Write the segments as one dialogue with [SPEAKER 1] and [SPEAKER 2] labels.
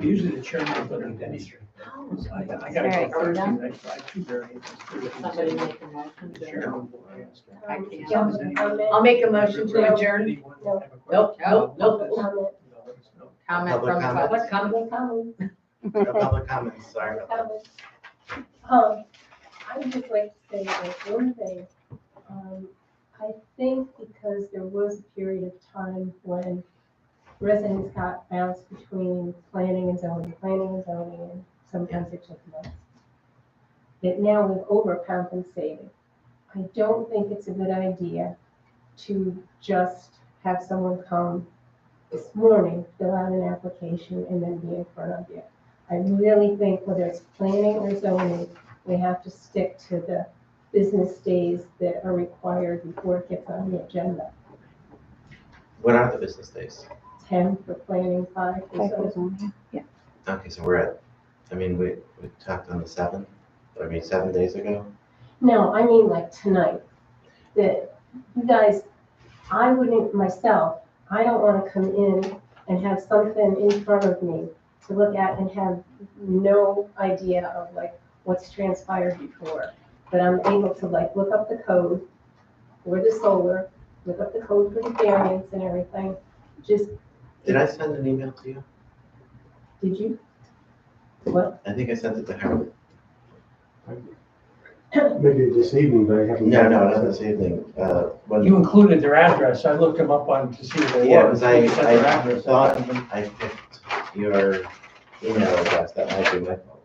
[SPEAKER 1] Usually the chairman will put in any string. I I gotta
[SPEAKER 2] Alright,
[SPEAKER 1] go
[SPEAKER 2] so
[SPEAKER 1] first,
[SPEAKER 2] now-
[SPEAKER 1] and I tried two variants.
[SPEAKER 2] Somebody make a motion.
[SPEAKER 1] The
[SPEAKER 2] to-
[SPEAKER 1] chairman will ask.
[SPEAKER 2] I can't.
[SPEAKER 1] Does anyone-
[SPEAKER 2] I'll make a motion to adjourn.
[SPEAKER 1] Anyone have a question?
[SPEAKER 2] Nope, nope, nope.
[SPEAKER 3] Comment.
[SPEAKER 1] No, it's no.
[SPEAKER 2] Comment from the public,
[SPEAKER 4] Public
[SPEAKER 2] comment, comment.
[SPEAKER 4] No public comments, sorry about that.
[SPEAKER 3] Um, I would just like to say that one thing, um, I think because there was a period of time when residents got bounced between planning and zoning, planning and zoning, and sometimes it took months. That now we've overcompensated. I don't think it's a good idea to just have someone come this morning, fill out an application, and then be in front of you. I really think whether it's planning or zoning, we have to stick to the business days that are required before it gets on the agenda.
[SPEAKER 4] What are the business days?
[SPEAKER 3] Ten for planning, five for zoning.
[SPEAKER 4] Okay, so we're at, I mean, we, we talked on the seventh, I mean, seven days ago.
[SPEAKER 3] No, I mean like tonight, that you guys, I wouldn't myself, I don't want to come in and have something in front of me to look at and have no idea of like what's transpired before. But I'm able to like look up the code for the solar, look up the code for the variance and everything. Just,
[SPEAKER 4] Did I send an email to you?
[SPEAKER 3] did you? What?
[SPEAKER 4] I think I sent it to Harold.
[SPEAKER 5] Maybe this evening, but I haven't.
[SPEAKER 4] No, no, not this evening, uh,
[SPEAKER 1] You
[SPEAKER 4] when
[SPEAKER 1] included their address, I looked them up on, to see if they were.
[SPEAKER 4] Yeah, 'cause I-
[SPEAKER 1] You said their
[SPEAKER 4] I
[SPEAKER 1] address.
[SPEAKER 4] thought- I picked your email address, that might be my fault.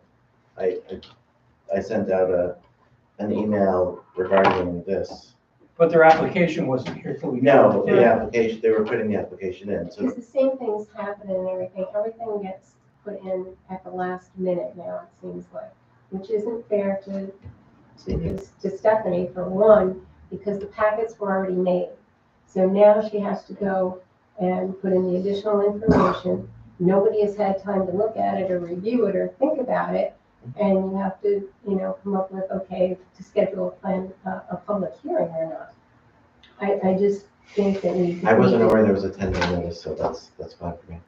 [SPEAKER 4] I, I, I sent out a, an email regarding this.
[SPEAKER 1] But their application wasn't here till we.
[SPEAKER 4] No, the application, they were putting the application in, so
[SPEAKER 3] Because the same things happen and everything, everything gets put in at the last minute now, it seems like, which isn't fair to, to, to Stephanie for one, because the packets were already made. So now she has to go and put in the additional information. Nobody has had time to look at it or review it or think about it. And you have to, you know, come up with, okay, to schedule a plan, a, a public hearing or not. I, I just think that we.
[SPEAKER 4] I wasn't aware there was a ten day notice, so that's, that's fine for me.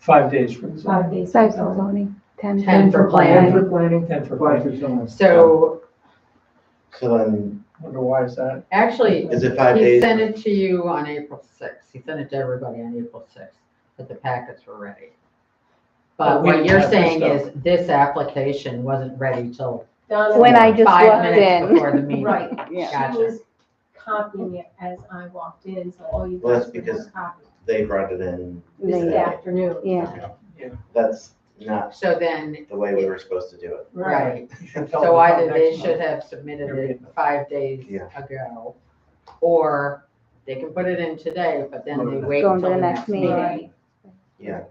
[SPEAKER 1] Five days from.
[SPEAKER 3] Five days.
[SPEAKER 6] Five for zoning, ten.
[SPEAKER 2] Ten for
[SPEAKER 6] plan.
[SPEAKER 2] planning.
[SPEAKER 1] planning. Ten for planning.
[SPEAKER 2] So
[SPEAKER 4] So then,
[SPEAKER 1] Wonder why is that?
[SPEAKER 2] actually,
[SPEAKER 4] is it five
[SPEAKER 2] he
[SPEAKER 4] days?
[SPEAKER 2] sent it to you on April sixth. He sent it to everybody on April sixth, but the packets were ready. But
[SPEAKER 1] But we
[SPEAKER 2] what
[SPEAKER 1] didn't
[SPEAKER 2] you're
[SPEAKER 1] have this
[SPEAKER 2] saying
[SPEAKER 1] stuff.
[SPEAKER 2] is this application wasn't ready till
[SPEAKER 3] Donna-
[SPEAKER 6] When I just
[SPEAKER 2] five
[SPEAKER 6] walked
[SPEAKER 2] minutes
[SPEAKER 6] in.
[SPEAKER 2] before the meeting.
[SPEAKER 3] Right.
[SPEAKER 6] Yeah.
[SPEAKER 3] She
[SPEAKER 2] Gotcha.
[SPEAKER 3] was copying it as I walked in, so all you
[SPEAKER 4] Well, that's
[SPEAKER 3] guys did was
[SPEAKER 4] because-
[SPEAKER 3] copy.
[SPEAKER 4] They brought it in,
[SPEAKER 3] This
[SPEAKER 4] They-
[SPEAKER 3] afternoon.
[SPEAKER 6] Yeah,
[SPEAKER 4] that's not
[SPEAKER 2] So then,
[SPEAKER 4] the way we were supposed to do it.
[SPEAKER 2] right,
[SPEAKER 1] You should
[SPEAKER 2] so
[SPEAKER 1] tell them about
[SPEAKER 2] either they
[SPEAKER 1] next
[SPEAKER 2] should
[SPEAKER 1] month.
[SPEAKER 2] have submitted it
[SPEAKER 1] Period.
[SPEAKER 2] five days
[SPEAKER 4] Yeah.
[SPEAKER 2] ago, or they can put it in today, but then they wait
[SPEAKER 6] Go
[SPEAKER 2] until
[SPEAKER 6] into
[SPEAKER 2] the
[SPEAKER 6] the
[SPEAKER 2] next
[SPEAKER 6] next meeting.
[SPEAKER 2] meeting.
[SPEAKER 4] Yeah,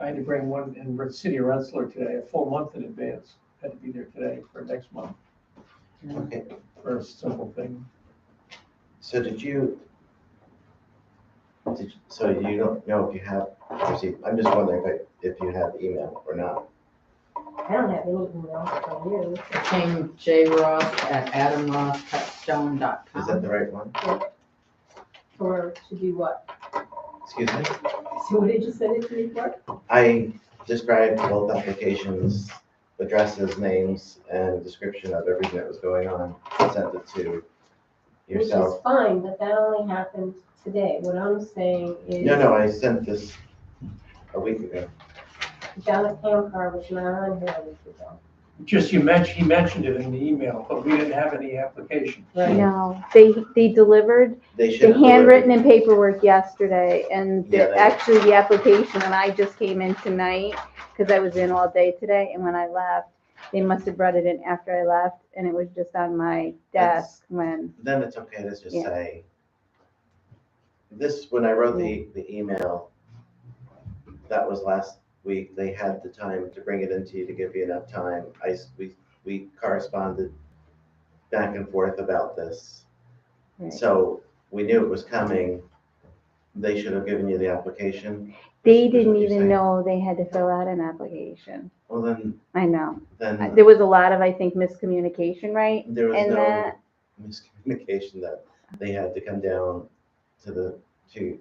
[SPEAKER 1] I had to bring one in the city of Rensselaer today, a full month in advance, had to be there today for next month,
[SPEAKER 4] okay.
[SPEAKER 1] for a simple thing.
[SPEAKER 4] So did you, did, you- so you don't know if you have received, I'm just wondering if, I- if you have email or not.
[SPEAKER 3] I don't have any emails from you.
[SPEAKER 2] It Came J Ross at
[SPEAKER 4] Is that
[SPEAKER 2] adamrosscutstone.com.
[SPEAKER 4] the right one?
[SPEAKER 3] For, to do what?
[SPEAKER 4] Excuse me?
[SPEAKER 3] So what did you send it to me for?
[SPEAKER 4] I described both applications, addresses, names, and description of everything that was going on, sent it to
[SPEAKER 3] Which
[SPEAKER 4] yourself.
[SPEAKER 3] is fine, but that only happened today. What I'm saying is.
[SPEAKER 4] No, no, I sent this a week ago.
[SPEAKER 3] Donna Camcar was not on here a week ago.
[SPEAKER 1] Just you mentioned, he mentioned it in the email, but we didn't have any application.
[SPEAKER 6] no, they, they delivered
[SPEAKER 4] They should
[SPEAKER 6] the
[SPEAKER 4] have. delivered-
[SPEAKER 6] handwritten and paperwork yesterday, and
[SPEAKER 4] Yeah,
[SPEAKER 6] the-
[SPEAKER 4] they-
[SPEAKER 6] actually the application, and I just came in tonight, because I was in all day today, and when I left, they must have brought it in after I left, and it was just on my desk when,
[SPEAKER 4] Then it's okay to just
[SPEAKER 6] Yeah.
[SPEAKER 4] say, this, when I wrote the, the email, that was last week, they had the time to bring it into you to give you enough time. I, s- we, we corresponded back and forth about this.
[SPEAKER 6] Right.
[SPEAKER 4] So we knew it was coming. They should have given you the application. Is
[SPEAKER 6] they
[SPEAKER 4] what
[SPEAKER 6] didn't
[SPEAKER 4] you're saying.
[SPEAKER 6] even know they had to fill out an application.
[SPEAKER 4] Well, then,
[SPEAKER 6] I know. I-
[SPEAKER 4] then
[SPEAKER 6] There was a lot of, I think, miscommunication, right?
[SPEAKER 4] Mm-hmm. there was
[SPEAKER 6] Uh, and
[SPEAKER 4] no
[SPEAKER 6] that-
[SPEAKER 4] miscommunication that they had to come down to the, to